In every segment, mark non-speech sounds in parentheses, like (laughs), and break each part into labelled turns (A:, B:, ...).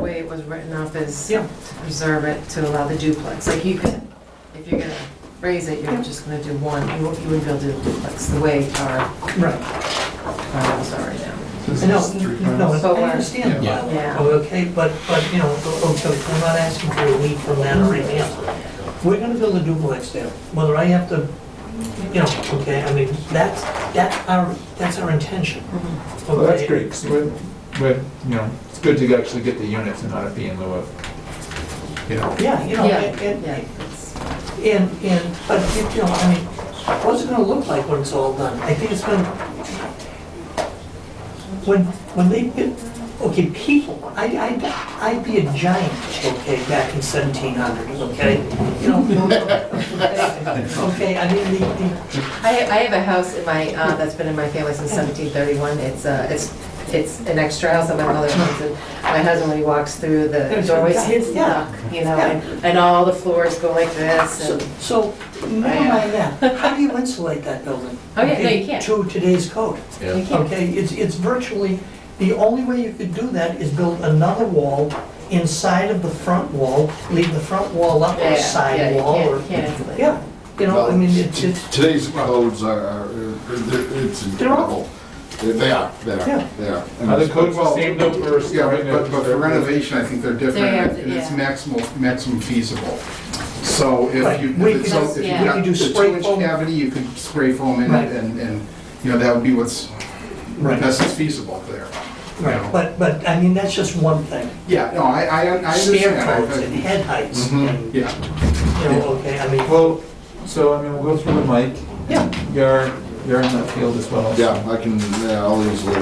A: way it was written up is
B: Yeah.
A: to preserve it to allow the duplex. Like you could, if you're gonna raise it, you're just gonna do one, you won't- you wouldn't be able to do duplex the way our
B: Right,
A: bylaws are right now.
C: This
B: I know,
C: is three
B: no,
C: plans.
B: I understand.
C: Yeah.
A: Yeah.
B: Okay, but, but, you know, okay, we're not asking for a week from that or anything else. We're gonna build a duplex there, whether I have to, you know, okay, I mean, that's, that's our, that's our intention.
A: Mm-hmm.
C: Well, Oh, that's
B: okay?
C: great, because we're, we're, you know, it's good to actually get the units and not be in lieu of, you know,
B: Yeah, you know,
A: Yeah,
B: and,
A: yeah,
B: and-
A: it's-
B: And, and, but, you know, I mean, what's it gonna look like when it's all done? I think it's gonna, when, when they, built- okay, people, I, I, I'd be a giant, okay, back in seventeen hundreds, okay? You know, okay, I mean, the, the,
A: (laughs) I, I have a house in my, uh, that's been in my family since seventeen thirty-one, it's, uh, it's, it's an extra house that my mother owns, and my husband, when he walks through the doorway, his
B: Yeah.
A: luck, you know, and, and all the floors go like this,
B: so,
A: and,
B: so, never mind that, how do you insulate that building?
A: Oh, yeah, no, you
B: okay,
A: can't.
B: To today's code.
A: you can't,
B: Okay, it's, it's virtually, the only way you could do that is build another wall inside of the front wall, leave the front wall up
A: yeah,
B: or
A: yeah, yeah,
B: side
A: you
B: wall
A: can't,
B: or,
A: you can't insulate.
B: yeah, you know, I mean, it's,
D: Well,
B: it's,
D: Today's codes are, are- they're- it's
B: They're awful.
D: incredible. They they are, they
B: Yeah.
D: are, they are. And
C: Other
D: it's-
C: codes will
D: well,
C: stand up for
D: Yeah,
C: restoring
D: but- but, but for
C: it.
D: renovation, I think they're
A: They are,
D: different, and it's
A: yeah.
D: maximum, maximum feasible. So
B: Right.
D: if you,
B: We
D: if it's,
B: could-
D: if you
A: yeah.
B: we could
D: got
B: do
D: the
B: spray
D: two-inch
B: foam.
D: cavity, you could spray foam in
B: Right.
D: it, and, and, you know, that would be what's,
B: Right.
D: best is feasible there.
B: right, but, but, I mean, that's just one thing.
D: Yeah, no, I, I, I
B: Stair
D: understand. I-
B: codes
D: I-
B: and head heights
D: Mhm,
B: and, you
D: Yeah.
B: know, okay, I mean,
C: Well, so, I mean, we'll go through with Mike.
B: Yeah.
C: You're, you're in that field as well.
D: Yeah, I can, yeah, I'll easily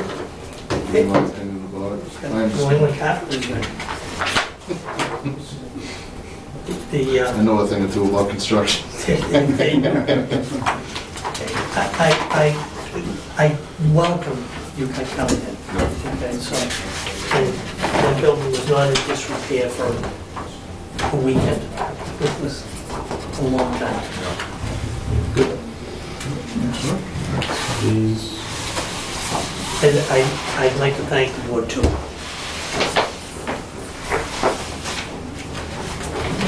D: give my opinion about it. I
B: going
D: understand.
B: with Hartford, but- (laughs) The, uh,
D: I know a thing or two about construction.
B: I, I, I I welcome you guys coming in. Okay, so, and the building was not in disrepair for a weekend. It was a long time.
E: These,
B: And I, I'd like to thank the board too.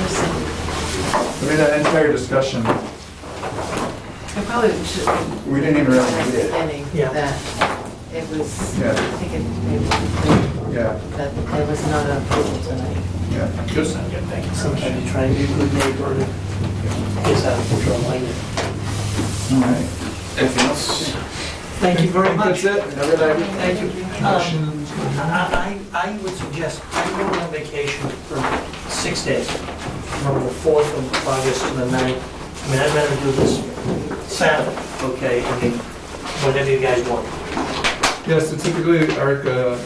C: I mean, that entire discussion,
A: I probably should,
C: we didn't even
A: from
C: really
A: the
C: need it.
A: beginning,
B: Yeah.
A: that it was, I
C: Yeah.
A: think it maybe,
C: Yeah,
A: that there was not an approval tonight.
C: yeah.
B: Sometimes you try and be a good neighbor and it gets out of control like it.
C: All right. Anything else?
B: Thank you very much.
C: That's it. Another day.
B: Thank you.
C: Motion.
B: I, I I would suggest, I'm going on vacation for six days, from the 4th of August to the 9th. I mean, I'd rather do this Saturday, okay, I mean, whatever you guys want.
C: Yeah, so typically, Erica,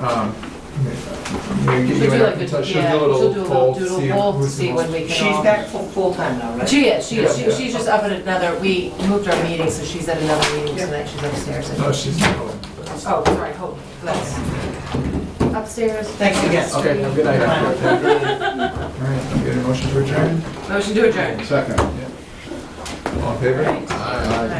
C: um, we get
A: She'll
C: you
A: do like
C: in
A: a-
C: touch, she'll
A: yeah,
C: do
A: she'll do a
C: a little
A: little
C: poll, to
A: doodle
C: see
A: poll to
C: who's
A: see
C: the
A: when
C: most.
A: we can
B: She's
A: all-
B: back full- full-time now, right?
A: She is, she is,
C: Yeah.
A: she- she's just up at another, we moved our meeting, so she's at another meeting
B: Yeah.
A: tonight, she's upstairs.
C: No,
A: Oh,
C: she's not going.
A: sorry, hold, let's. Upstairs.
B: Thanks again.
C: Okay, have a good night. All right, I'm getting a motion to adjourn.
A: Motion to adjourn.
D: Second.
C: All in favor?
A: Right.
D: Aye.